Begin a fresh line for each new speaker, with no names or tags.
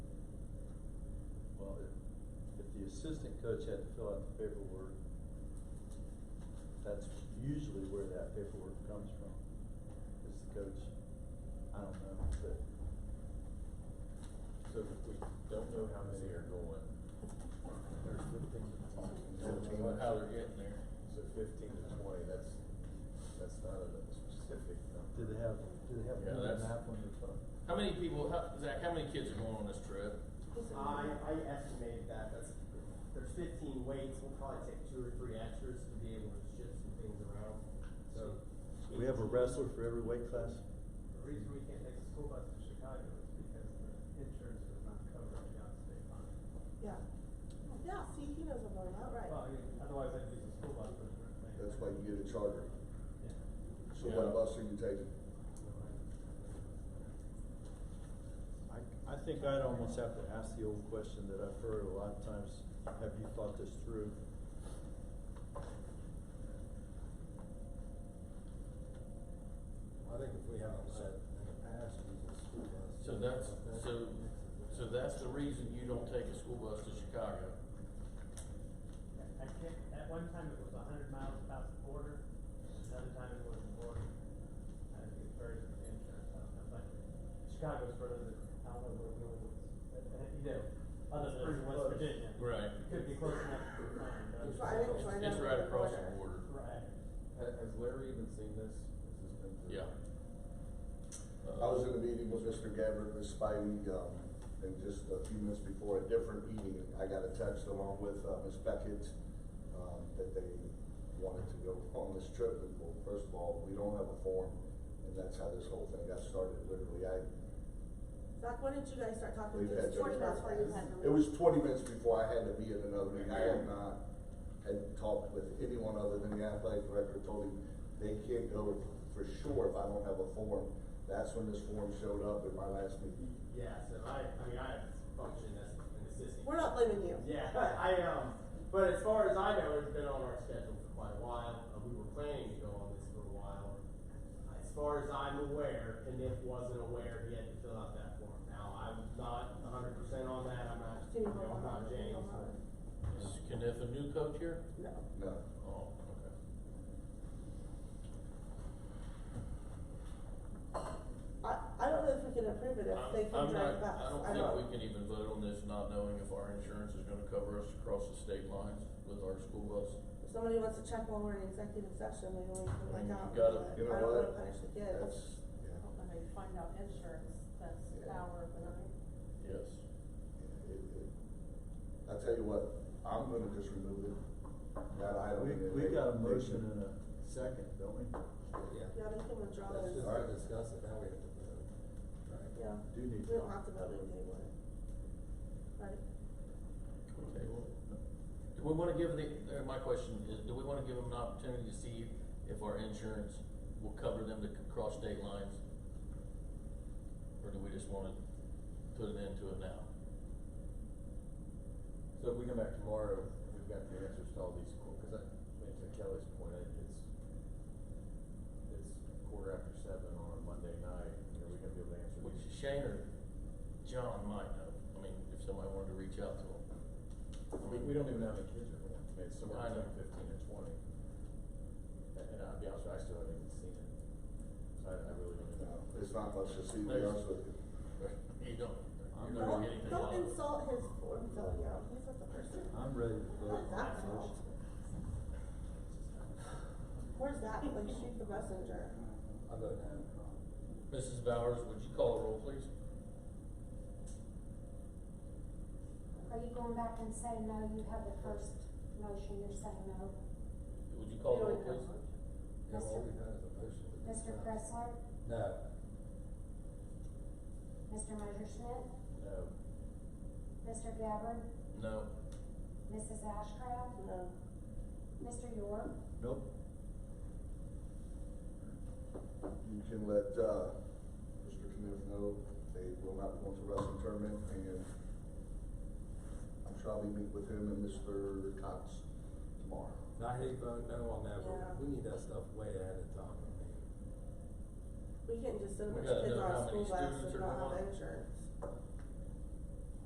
assistant coach had to fill out the paperwork. That's usually where that paperwork comes from, is the coach. I don't know, but
So we don't know how many are going.
there's fifteen.
Don't know how they're getting there. So fifteen to twenty, that's, that's not a specific
Do
number.
they have, do they have
Yeah,
a
that's-
map on their phone?
How many people, how, Zach, how many kids are going on this trip?
I, I estimated that, that's, there's fifteen weights, we'll probably take two or three extras to be able to shift some things around, so.
We have a wrestler for every weight class?
The reason we can't take the school bus to Chicago is because the insurance does not cover it beyond state line.
Yeah, yeah, see, he knows I'm going out, right?
Well, I mean, otherwise I'd use the school bus for the.
That's why you get a charter.
Yeah.
So what bus are you taking?
I, I think I'd almost have to ask the old question that I've heard a lot of times, have you thought this through?
I think if we have a set in the past, we just school bus.
So that's, so, so that's the reason you don't take a school bus to Chicago?
I can't, at one time it was a hundred miles past the border, another time it was the border. I think it varies with the insurance, I don't know, but Chicago's further than, I don't know where Wheeling is, but, uh, you know, other than West Virginia.
Right.
Could be close enough to find, but.
It's right- it's right
It's
up
right
the
across the
border.
border.
Right.
Ha- Has Larry even seen this? Has this been through?
Yeah.
I was in a meeting with Mr. Gabbard, Ms. Spivey, um, and just a few minutes before a different meeting, I got a text along with, uh, Ms. Beckett, um, that they wanted to go on this trip, and well, first of all, we don't have a form, and that's how this whole thing got started, literally, I,
Zach, when did you guys start talking?
we've
It
had.
was 20 minutes before you had to
It was
leave.
twenty minutes before I had to be in another meeting, I had not, had talked with anyone other than the athletic director, told him they can't go for sure if I don't have a form. That's when this form showed up in my last meeting.
Yeah, so I, I mean, I function as an assistant.
We're not blaming you.
Yeah, I, um, but as far as I know, it's been on our schedule for quite a while, uh, we were planning to go on this for a while. As far as I'm aware, and if wasn't aware, he had to fill out that form. Now, I'm not hundred percent on that, I'm not, you know, I'm not James, but.
Uh, Is Kenneth a new coach here?
No.
No,
Oh, okay.
I, I don't know if we can approve it if
I'm-
they can
I'm not-
drive back.
I don't think we can even vote on this not knowing if our insurance is gonna cover us across the state lines with our school bus.
If somebody wants to check while we're in executive session, maybe we can
I mean,
like out.
you gotta-
but
you know
I don't wanna
what?
punish the
That's,
kids.
yeah,
When they find out insurance, that's the hour of the night.
Yes.
it, it, I tell you what, I'm gonna just remove it, that item.
We,
and
we
they-
got a
they
motion
can-
and a second, don't we?
Yeah, they can withdraw
That's just
those.
to discuss it, now we have to vote, right?
Yeah.
Do need
We
to.
don't have to vote it anymore. Right?
Can we table it? Do we wanna give the, uh, my question is, do we wanna give them an opportunity to see if our insurance will cover them to c- cross state lines? Or do we just wanna put an end to it now?
So if we come back tomorrow, we've got the answers to all these, que- cause I, I mean, to Kelly's point, it- it's, it's quarter after seven on a Monday night, are we gonna be able to answer
Which
these?
Shane or John might know, I mean, if somebody wanted to reach out to them.
We, we don't even know how many kids are going, I mean, it's
I
somewhere
know.
between fifteen and twenty. And, and I'll be honest, with you, I still haven't even seen it, so I, I really don't know.
No, It's not much to see, to be honest with you.
You don't,
I'm
you're not
not-
getting anything
Don't, don't
out of it.
insult his form filling out. He's not the person.
I'm ready to vote.
Not Zach's fault. Where's that? Like shoot the messenger.
I vote no.
Mrs. Bowers, would you call a roll, please?
Are you going back and saying, no, you have the first motion, you're saying no?
Would you call a roll,
We don't have
Oh, please?
Yeah, all we've had is a motion. to
Mr.
discuss.
Pressler,
No.
Mr. Messerschmidt,
No,
Mr. Gabbard,
No.
Mrs. Ashcraft,
No.
Mr. York,
Nope.
You can let, uh, Mr. Knuth know they will not be going to wrestling tournament, and I'm sure I'll be meeting with him and Mster Cox tomorrow.
And I hate voting no on that,
Yeah.
but we need that stuff way ahead of time, I mean.
We can't just send a
We
bunch of
gotta
kids
know
on
how
a school
many
bus
students
and
are
not
going
have
on.
insurance.